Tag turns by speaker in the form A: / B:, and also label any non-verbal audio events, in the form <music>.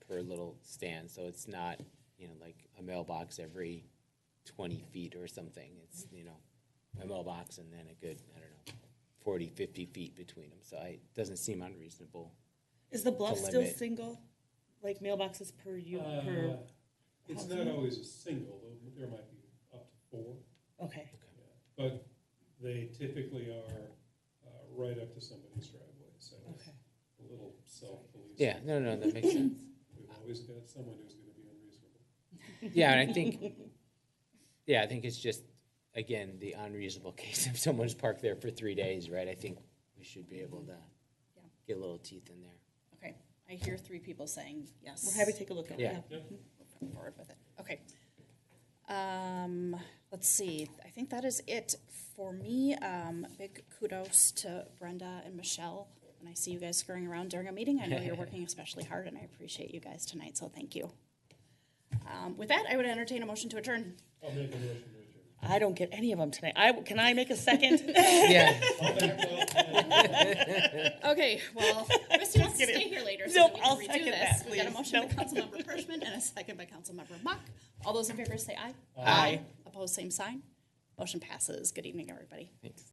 A: per little stand, so it's not, you know, like a mailbox every twenty feet or something. It's, you know, a mailbox and then a good, I don't know, 40, 50 feet between them, so I, it doesn't seem unreasonable.
B: Is the bluff
A: To
B: still
A: limit.
B: single? Like mailboxes per you, per,
C: Uh, It's not always a single, though, there might be up to four,
B: okay,
C: yeah. but they typically are uh, right up to somebody's driveway, so it's
B: okay.
C: a little self-policing.
A: Yeah, no, no, that makes sense.
C: We've always got someone who's gonna be
A: <laughs>
C: unreasonable.
A: Yeah, and I think, yeah, I think it's just, again, the unreasonable <laughs> case if someone's parked there for three days, right? I think we should be able to
D: Yeah.
A: get a little teeth in there.
D: Okay, I hear three people saying yes.
B: We'll have you take a look at it.
A: Yeah.
D: Move Forward with it, okay. Um, let's see, I think that is it for me. Um, big kudos to Brenda and Michelle. When I see you guys scurrying around during a meeting, I know
B: <laughs>
D: you're working especially hard, and I appreciate you guys tonight, so thank you. Um, with that, I would entertain a motion to adjourn.
C: I'll make a motion to adjourn.
B: I don't get any of them tonight. I, can I make
A: <laughs>
B: a second?
A: Yeah.
D: Okay,
B: <laughs>
D: well, Christy wants to
B: kidding.
D: stay here later, so
B: Nope,
D: we
B: I'll
D: can redo
B: second
D: this.
B: that,
D: We got a
B: please.
D: motion by
B: Nope.
D: Councilmember Hirschman and a second by Councilmember Mock. All those in favor say aye.
B: Aye.
D: Opposed, same sign. Motion passes. Good evening, everybody.
A: Thanks.